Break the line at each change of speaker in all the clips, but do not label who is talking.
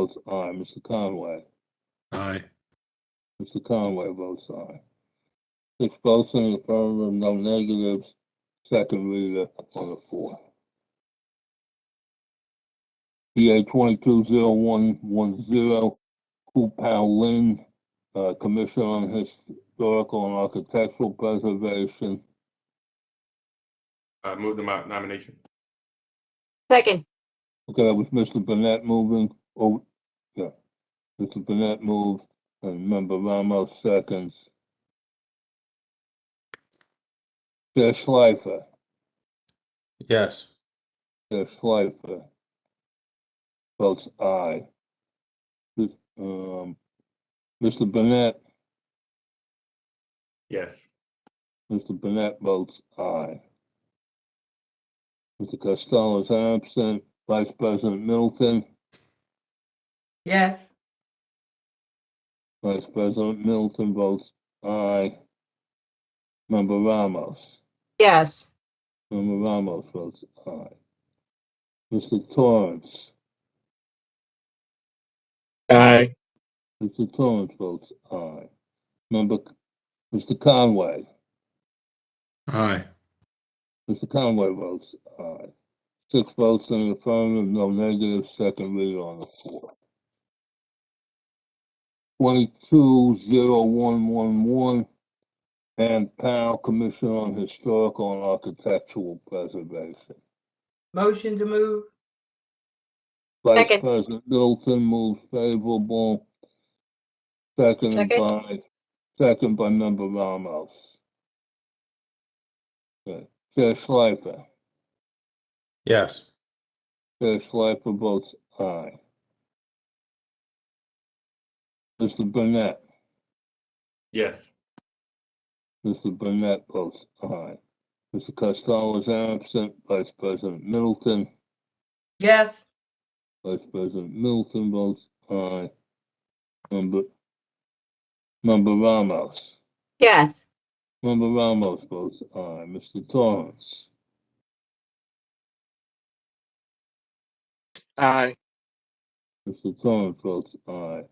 votes aye. Mr. Conway?
Aye.
Mr. Conway votes aye. Six votes in the affirmative, no negatives. Second reader on the fourth. PA twenty-two zero one one zero, Ku Pao Lin, uh, Commission on Historical and Architectural Preservation.
Uh, move the mo- nomination.
Second,
Okay, that was Mr. Burnett moving, oh, yeah. Mr. Burnett moved, and member Ramos seconds. Chair Schleifer,
Yes.
Chair Schleifer. Votes aye. This, Um, Mr. Burnett,
Yes.
Mr. Burnett votes aye. Mr. Costello is absent, Vice President Middleton,
yes,
Vice President Middleton votes aye. Member Ramos.
yes.
Member Ramos votes aye. Mr. Torrance,
aye,
Mr. Torrance votes aye. Member, Mr. Conway,
Aye.
Mr. Conway votes aye. Six votes in the affirmative, no negative, second reader on the floor. Twenty-two zero one one one, and Powell, Commission on Historical and Architectural Preservation.
motion to move,
Vice
Second.
President Middleton moves favorable. Second
Second.
by, second by member Ramos. Okay. Chair Schleifer,
Yes.
Chair Schleifer votes aye. Mr. Burnett,
Yes.
Mr. Burnett votes aye. Mr. Costello is absent, Vice President Middleton,
yes,
Vice President Middleton votes aye. Member, member Ramos.
Yes.
Member Ramos votes aye. Mr. Torrance.
aye,
Mr. Torrance votes aye.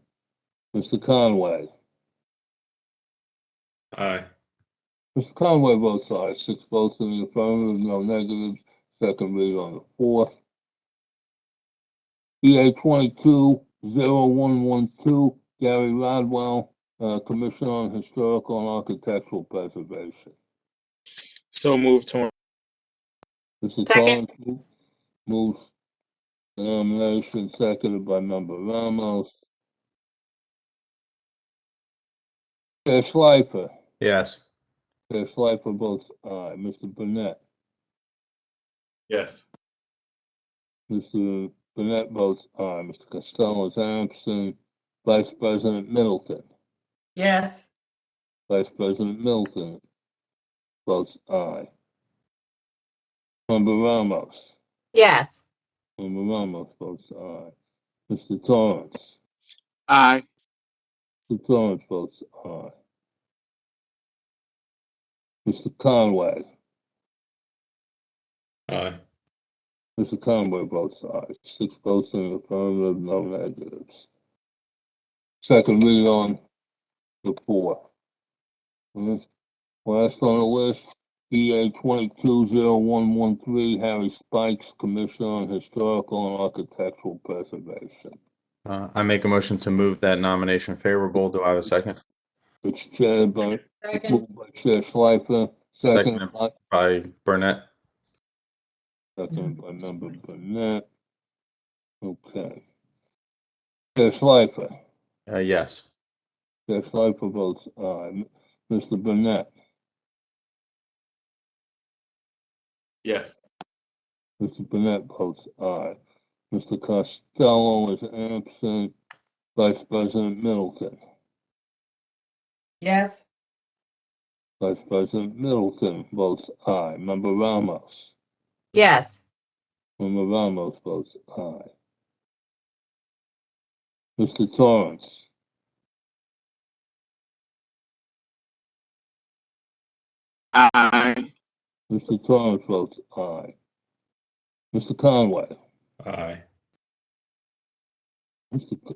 Mr. Conway.
Aye.
Mr. Conway votes aye. Six votes in the affirmative, no negatives. Second read on the fourth. EA twenty-two zero one one two, Gary Rodwell, uh, Commissioner on Historical and Architectural Preservation.
so move Torrance,
Mr.
Second.
Torrance mo- moves the nomination, seconded by member Ramos. Chair Schleifer,
Yes.
Chair Schleifer votes aye. Mr. Burnett,
Yes.
Mr. Burnett votes aye. Mr. Costello is absent. Vice President Middleton,
yes,
Vice President Middleton votes aye. Member Ramos,
Yes.
member Ramos votes aye. Mr. Torrance.
aye,
Mr. Torrance votes aye. Mr. Conway,
Aye.
Mr. Conway votes aye. Six votes in the affirmative, no negatives. Second read on the fourth. And this- Last on the list, EA twenty-two zero one one three, Harry Spikes, Commissioner on Historical and Architectural Preservation.
Uh, I make a motion to move that nomination favorable. Do I have a second?
It's chaired by,
second,
moved by Chair Schleifer, seconded
Second.
by
By Burnett?
Second by member Burnett. Okay. Chair Schleifer,
Uh, yes.
Chair Schleifer votes aye. Mr. Burnett,
Yes.
Mr. Burnett votes aye. Mr. Costello is absent. Vice President Middleton,
yes,
Vice President Middleton votes aye. Member Ramos,
Yes.
Member Ramos votes aye. Mr. Torrance,
aye,
Mr. Torrance votes aye. Mr. Conway,
Aye.
Mr. C-